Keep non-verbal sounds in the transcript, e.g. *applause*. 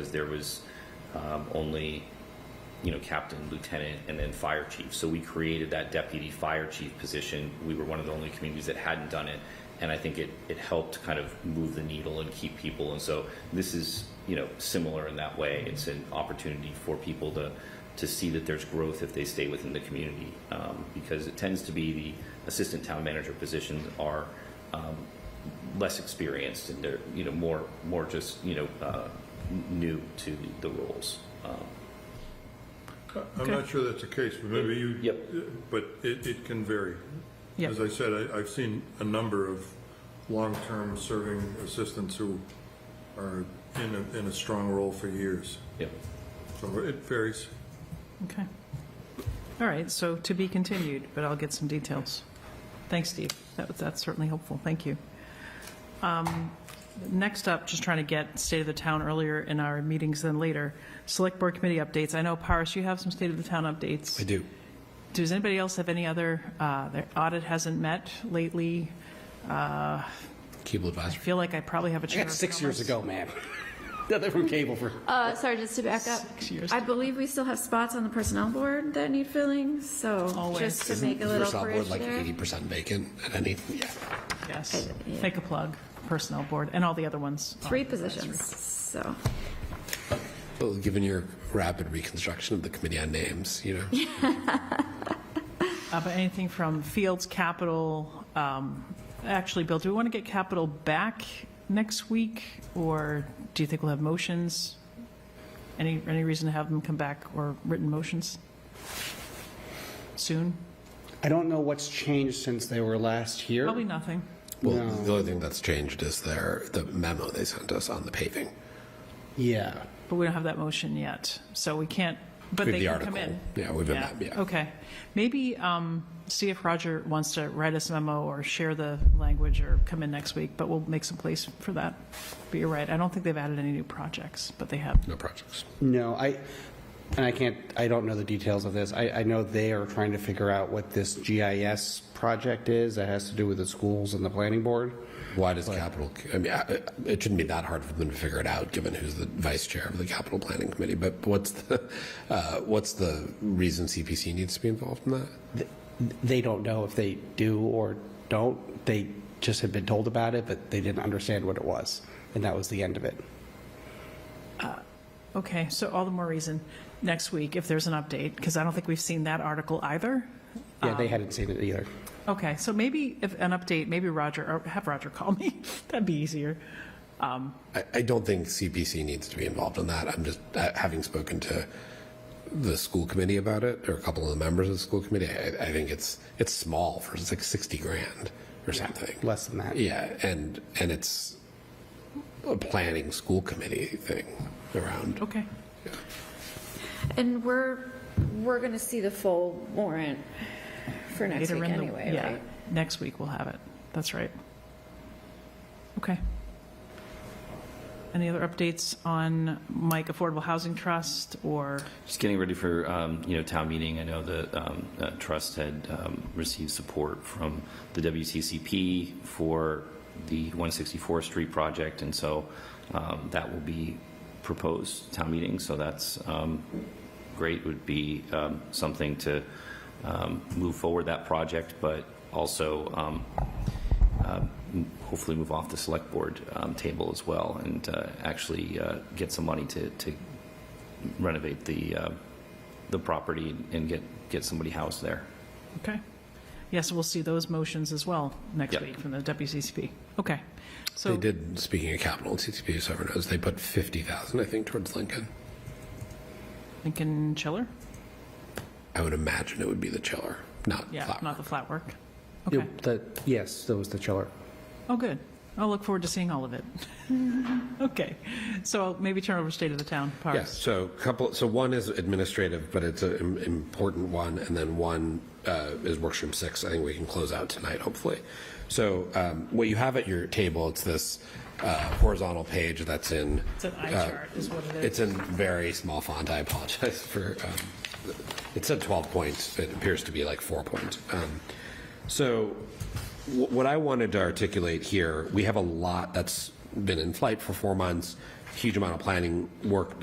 because there was um, only, you know, captain, lieutenant, and then fire chief. So we created that deputy fire chief position. We were one of the only communities that hadn't done it. And I think it, it helped kind of move the needle and keep people. And so this is, you know, similar in that way. It's an opportunity for people to, to see that there's growth if they stay within the community. Um, because it tends to be the assistant town manager positions are, um, less experienced and they're you know more more just you know uh, n- new to the rules. Um, I'm not sure that's the case, but maybe you. Yep. But it, it can vary. Yep. As I said, I, I've seen a number of long-term serving assistants who are in a, in a strong role for years. yeah. So it varies. Okay. All right, so to be continued, but I'll get some details. Thanks, Steve. That was- That's certainly helpful. Thank you. Um, Next up, just trying to get state of the town earlier in our meetings than later. Select Board Committee updates. I know, Paris, you have some state of the town updates. I do. Does anybody else have any other, uh, their audit hasn't met lately? Cable I advisory. feel like I probably have a I chair got of six years commerce. ago, man. *laughs* Nothing from cable for. Uh, sorry, just to back up. years. I believe we still have spots on the personnel board that need filling, so Always. just to Isn't make a the little personnel bridge board like there. eighty percent vacant at any? Yeah. Yes. Make a plug, Personnel Board, and all the other ones. Three positions, so. Well, given your rapid reconstruction of the committee on names, you know. Uh, But anything from Fields, Capital, um, actually, Bill, do we want to get Capital back next week? Or do you think we'll have motions? Any, any reason to have them come back or written motions soon? I don't know what's changed since they were last here. Probably nothing. Well, the only thing that's changed is their the memo they sent us on the paving. Yeah. But we don't have that motion yet, so we can't, but We have they the can come article. in. Yeah, we have a map, yeah. Okay. Maybe um, see if Roger wants to write us a memo or share the language or come in next week, but we'll make some place for that. But you're right, I don't think they've added any new projects, but they have. No projects. No, I, and I can't, I don't know the details of this. I, I know they are trying to figure out what this GIS project is that has to do with the schools and the planning board. Why does capital? I mean, I- it shouldn't be that hard for them to figure it out, given who's the vice chair of the capital planning committee. But what's the uh, what's the reason CPC needs to be involved in that? Th- They don't know if they do or don't. They just had been told about it, but they didn't understand what it was. And that was the end of it. Okay, so all the more reason next week if there's an update, because I don't think we've seen that article either. Yeah, they hadn't seen it either. Okay, so maybe if an update, maybe Roger, or have Roger call *laughs* me. That'd be easier. I, I don't think CPC needs to be involved in that. I'm just, uh, having spoken to the school committee about it, or a couple of the members of the school committee, I, I think it's, it's small for, it's like 60 grand or something. Less than that. Yeah, and, and it's a planning school committee thing around. Okay. And we're, we're going to see the full warrant for next Later week in the- anyway, yeah, right? Next week we'll have it. That's right. Okay. Any other updates on Mike Affordable Housing Trust or, Just getting ready for um, you know town meeting. I know the um, uh, trust had um, received support from the WCCP for the 164th Street project, and so um, that will be proposed town meeting. So that's um, great. Would be um, something to um, move forward that project, but also um, m- hopefully move off the select board um, table as well and uh, actually uh, get some money to, to renovate the, uh, the property and get, get somebody housed there. okay. Yes, we'll see those motions as well next Yep. week from the WCCP. Okay. So They did, speaking of capital, CCP, so everyone knows, they put 50,000, I think, towards Lincoln. Lincoln Chiller? I would imagine it would be the chiller, not Yeah, Flower. not the flat work. It- Okay. the- Yes, that was the chiller. Oh, good. I'll look forward to seeing all of it. *laughs* Okay. So I'll maybe turn over to State of the Town, Yeah, Parks. so couple, so one is administrative, but it's an important one, and then one uh, is workstream six. I think we can close out tonight, hopefully. So um, what you have at your table, it's this uh, horizontal page that's in. It's an eye uh, chart is what it is. It's in very small font, I apologize *laughs* for, um, it said 12 points, it appears to be like four points. Um, So wh- what I wanted to articulate here, we have a lot that's been in flight for four months, huge amount of planning work